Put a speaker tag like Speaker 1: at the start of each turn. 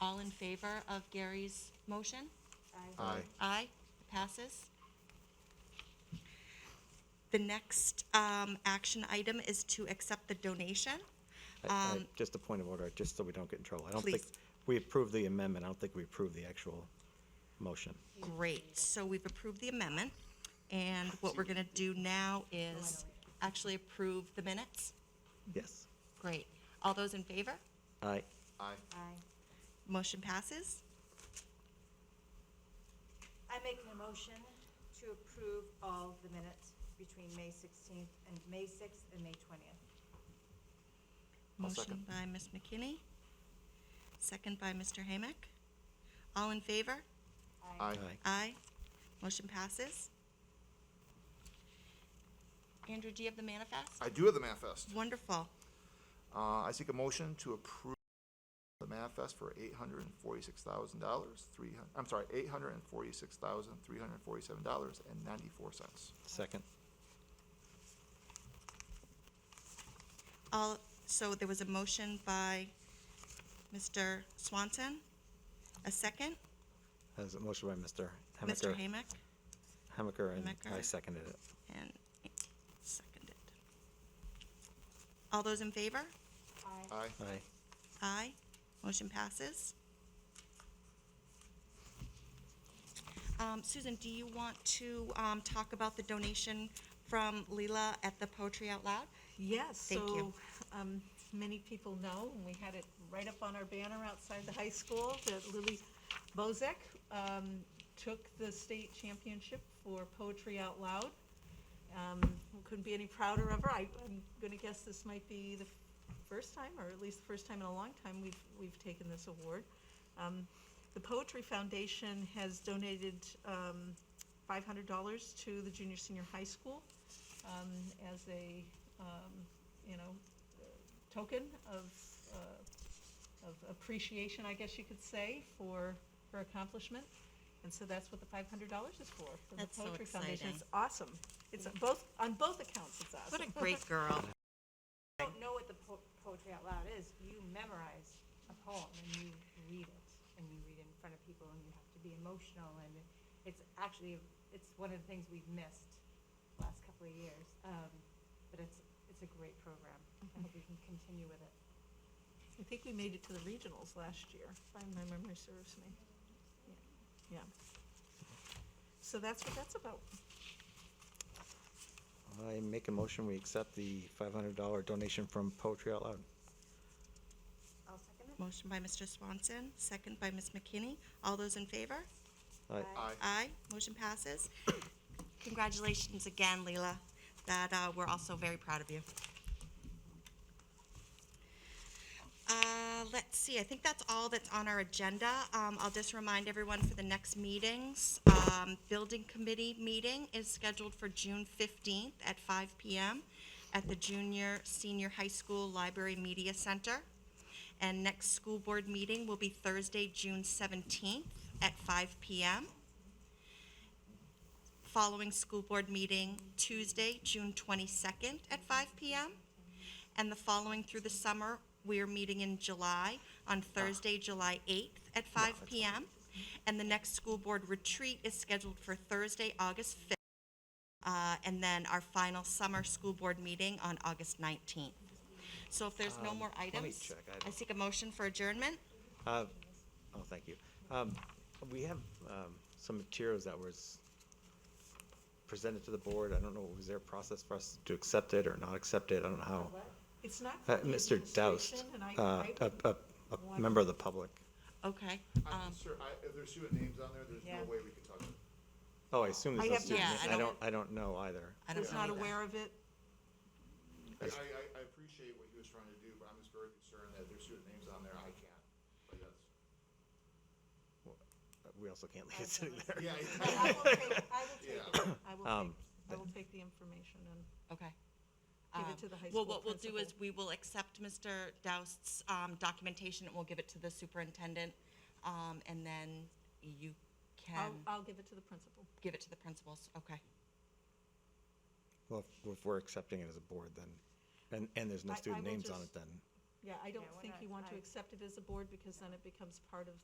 Speaker 1: favor of Gary's motion?
Speaker 2: Aye.
Speaker 1: Aye, it passes. The next um, action item is to accept the donation.
Speaker 2: I- I-
Speaker 1: Um,
Speaker 2: Just a point of order, just so we don't get in trouble. I don't think,
Speaker 1: Please.
Speaker 2: we approved the amendment, I don't think we approved the actual motion.
Speaker 1: Great, so we've approved the amendment, and what we're going to do now is actually approve the minutes.
Speaker 2: Yes.
Speaker 1: Great. All those in favor?
Speaker 2: Aye.
Speaker 3: Aye.
Speaker 1: Motion passes.
Speaker 4: I make a motion to approve all the minutes between May 16th and May 6th and May 20th.
Speaker 3: I'll second.
Speaker 1: Motion by Ms. McKinney, second by Mr. Hamick. All in favor?
Speaker 3: Aye.
Speaker 1: Aye. Motion passes. Andrew, do you have the manifest?
Speaker 3: I do have the manifest.
Speaker 1: Wonderful.
Speaker 3: Uh, I seek a motion to approve the manifest for eight hundred and forty-six thousand dollars, three, hun- I'm sorry, eight hundred and forty-six thousand, three hundred and forty-seven dollars and ninety-four cents.
Speaker 2: Second.
Speaker 1: All, so there was a motion by Mr. Swanson, a second,
Speaker 2: Has a motion by Mr.
Speaker 1: Mr.
Speaker 2: Hamaker.
Speaker 1: Hamick,
Speaker 2: Hamaker, and I
Speaker 1: Hamaker.
Speaker 2: seconded it.
Speaker 1: and seconded. All those in favor?
Speaker 3: Aye.
Speaker 2: Aye.
Speaker 1: Aye. Motion passes. Um, Susan, do you want to, um, talk about the donation from Leela at the Poetry Out Loud?
Speaker 5: Yes,
Speaker 1: Thank you.
Speaker 5: so, um, many people know, and we had it right up on our banner outside the high school, that Lily Bozek, um, took the state championship for Poetry Out Loud. Um, couldn't be any prouder of her. I, I'm gonna guess this might be the first time, or at least the first time in a long time, we've, we've taken this award. Um, the Poetry Foundation has donated, um, five hundred dollars to the junior, senior high school, um, as a, um, you know, token of, uh, of appreciation, I guess you could say, for her accomplishment. And so that's what the five hundred dollars is for, for the
Speaker 1: That's so
Speaker 5: Poetry Foundation. It's
Speaker 1: exciting.
Speaker 5: awesome. It's on both, on both accounts, it's awesome.
Speaker 1: What a great girl.
Speaker 4: I don't know what the po- poetry out loud is. You memorize a poem and you read it, and you read it in front of people, and you have to be emotional, and it's actually, it's one of the things we've missed the last couple of years. Um, But it's, it's a great program. I hope we can continue with it.
Speaker 5: I think we made it to the regionals last year, if my memory serves me. Yeah. So that's what that's about.
Speaker 2: I make a motion, we accept the five hundred dollar donation from Poetry Out Loud.
Speaker 4: I'll second it.
Speaker 1: Motion by Mr. Swanson, second by Ms. McKinney. All those in favor?
Speaker 2: Aye.
Speaker 3: Aye.
Speaker 1: Aye. Motion passes. Congratulations again, Leela. That, uh, we're also very proud of you. Uh, let's see, I think that's all that's on our agenda. Um, I'll just remind everyone for the next meetings. Um, Building Committee meeting is scheduled for June fifteenth at five PM at the Junior Senior High School Library Media Center. And next school board meeting will be Thursday, June seventeenth at five PM. Following school board meeting Tuesday, June twenty-second at five PM. And the following through the summer, we are meeting in July on Thursday, July eighth at five PM. And the next school board retreat is scheduled for Thursday, August fifth. Uh, and then our final summer school board meeting on August nineteenth. So if there's no
Speaker 2: Um,
Speaker 1: more
Speaker 2: let me
Speaker 1: items,
Speaker 2: check. I don't-
Speaker 1: I seek a motion for adjournment.
Speaker 2: Uh, oh, thank you. Um, we have, um, some materials that was presented to the board. I don't know, was there a process for us to accept it or not accept it? I don't know how.
Speaker 5: It's not.
Speaker 2: Uh,
Speaker 5: for the
Speaker 2: Mr. Doust,
Speaker 5: administration, and I-
Speaker 2: uh,
Speaker 5: I-
Speaker 2: a, a, a member of the public.
Speaker 1: Okay. um,
Speaker 3: sure, I, if there's student names on there, there's
Speaker 5: no Yeah.
Speaker 3: way we could talk about it.
Speaker 2: Oh, I assume
Speaker 5: I
Speaker 2: there's no
Speaker 5: have-
Speaker 2: student.
Speaker 1: yeah,
Speaker 2: name.
Speaker 1: I
Speaker 2: I
Speaker 1: don't-
Speaker 2: don't, I don't know either.
Speaker 1: I don't
Speaker 5: Was
Speaker 1: know
Speaker 5: not
Speaker 1: either.
Speaker 5: aware of it.
Speaker 3: I, I, I appreciate what he was trying to do, but I'm just very concerned that if there's student names on there, I can't. But that's,
Speaker 2: We also can't leave it sitting there.
Speaker 3: yeah,
Speaker 5: I
Speaker 3: I-
Speaker 5: will take, I will take it. I will
Speaker 2: Um,
Speaker 5: take, I will take the information and.
Speaker 1: Okay.
Speaker 5: Give it
Speaker 1: Um,
Speaker 5: to the high
Speaker 1: Well,
Speaker 5: school
Speaker 1: what we'll do is
Speaker 5: principal.
Speaker 1: we will accept Mr. Doust's um, documentation and we'll give it to the superintendent. um, And then you can
Speaker 5: I'll, I'll give it to the principal.
Speaker 1: give it to the principals. Okay.
Speaker 2: Well, if- if we're accepting it as a board, then, and, and there's no
Speaker 5: I- I
Speaker 2: student
Speaker 5: will
Speaker 2: names on it,
Speaker 5: just-
Speaker 2: then.
Speaker 5: Yeah, I don't
Speaker 4: Yeah, we're
Speaker 5: think
Speaker 4: not-
Speaker 5: you want to
Speaker 4: I-
Speaker 5: accept it as a board because then it becomes part of